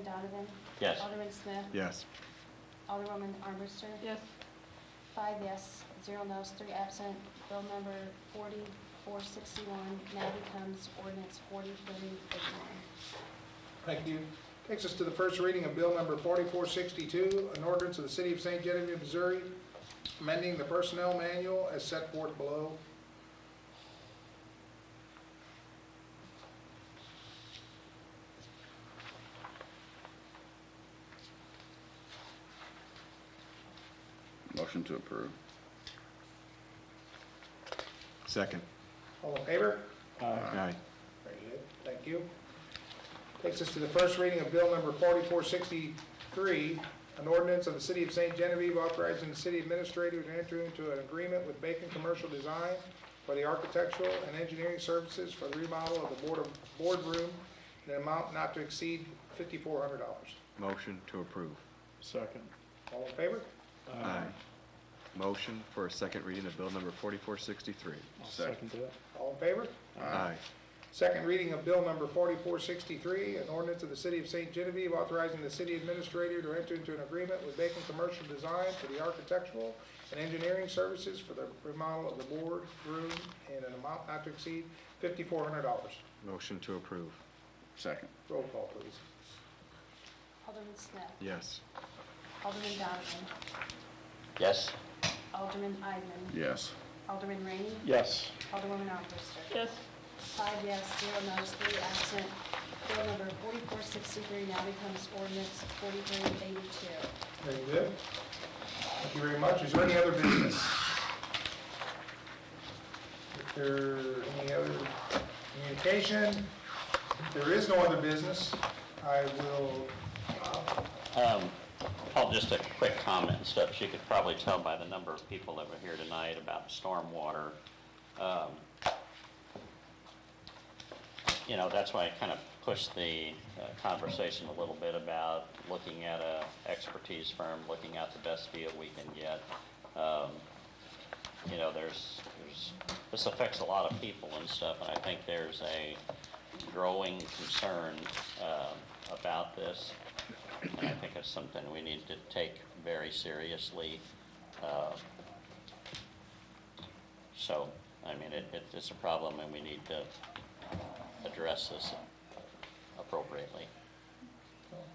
Donovan? Yes. Alderman Smith? Yes. Alderwoman Armbruster? Yes. Five yes, zero no's, three absent. Bill number 4461 now becomes ordinance 4381. Thank you. Takes us to the first reading of Bill Number 4462, an ordinance of the City of St. Genevieve, Missouri, amending the Personnel Manual as set forth below. Motion to approve. Second. All in favor? Aye. Very good, thank you. Takes us to the first reading of Bill Number 4463, an ordinance of the City of St. Genevieve authorizing the city administrator to enter into an agreement with Bacon Commercial Design for the architectural and engineering services for the remodel of the board of- boardroom in an amount not to exceed $5,400. Motion to approve. Second. All in favor? Aye. Motion for a second reading of bill number 4463. I'll Second. second that. All in favor? Aye. Second reading of Bill Number 4463, an ordinance of the City of St. Genevieve authorizing the city administrator to enter into an agreement with Bacon Commercial Design for the architectural and engineering services for the remodel of the board room in an amount not to exceed $5,400. Motion to approve. Second. Roll call, please. Alderman Smith? Yes. Alderman Donovan? Yes. Alderman Eidman? Yes. Alderman Rainey? Yes. Alderwoman Armbruster? Yes. Five yes, zero no's, three absent. Bill number 4463 now becomes ordinance 4382. Very good. Thank you very much. Is there any other business? If there any other communication, if there is no other business, I will, uh, Um, Paul, just a quick comment and stuff. You could probably tell by the number of people that were here tonight about stormwater. Um, You know, that's why I kind of pushed the uh, conversation a little bit about looking at a expertise firm, looking at the best deal we can get. Um, You know, there's, there's, this affects a lot of people and stuff, and I think there's a growing concern um, about this. And I think it's something we need to take very seriously. Uh, So, I mean, it, it- it's a problem and we need to address this appropriately.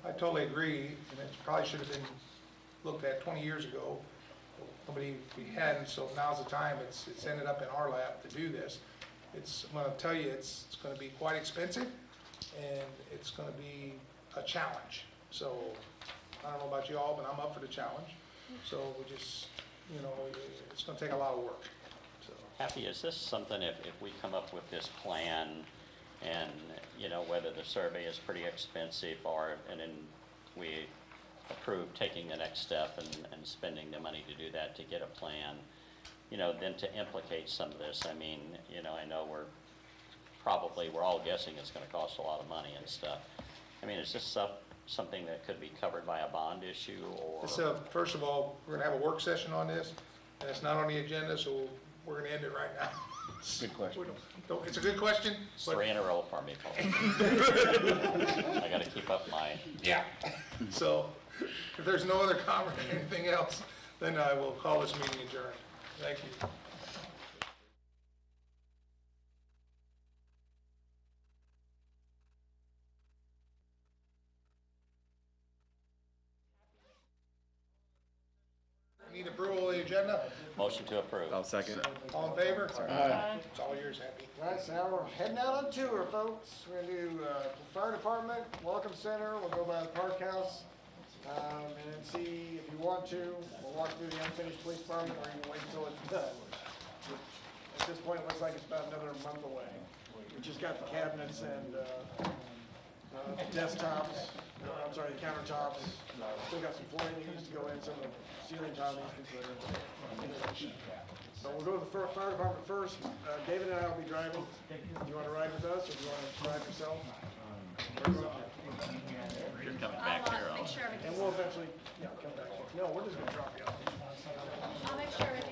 I totally agree, and it probably should have been looked at 20 years ago. Nobody, we hadn't, so now's the time. It's, it's ended up in our lap to do this. It's, I'm gonna tell you, it's, it's gonna be quite expensive, and it's gonna be a challenge. So, I don't know about you all, but I'm up for the challenge. So we just, you know, it's gonna take a lot of work, so. Happy, is this something, if, if we come up with this plan and, you know, whether the survey is pretty expensive or, and then we approve taking the next step and, and spending the money to do that, to get a plan, you know, then to implicate some of this, I mean, you know, I know we're probably, we're all guessing it's gonna cost a lot of money and stuff. I mean, is this some, something that could be covered by a bond issue or? It's a, first of all, we're gonna have a work session on this, and it's not on the agenda, so we're gonna end it right now. Good question. We don't- don't- It's a good question, It's but- Three in a row for me, Paul. I gotta keep up my. yeah. So, if there's no other comment or anything else, then I will call this meeting adjourned. Thank you. Need approval of the agenda? Motion to approve. I'll second. All in favor? Aye. It's all yours, Happy. Right, so now we're heading out on tour, folks. We're gonna do, uh, the fire department, welcome center, we'll go by the park house. Um, and then see if you want to, we'll walk through the unfinished police department or you can wait until it's done. which At this point, it looks like it's about another month away. We just got the cabinets and, uh, uh, desktops, no, I'm sorry, the countertops. Still got some flooring that needs to go in, some of the ceiling tile needs to be put in. So we'll go to the fir- fire department first. Uh, David and I will be driving. Do you want to ride with us or do you want to drive yourself? You're coming back here. I'll- And we'll eventually, yeah, come back. No, we're just going to drop you off. I'll make sure everything's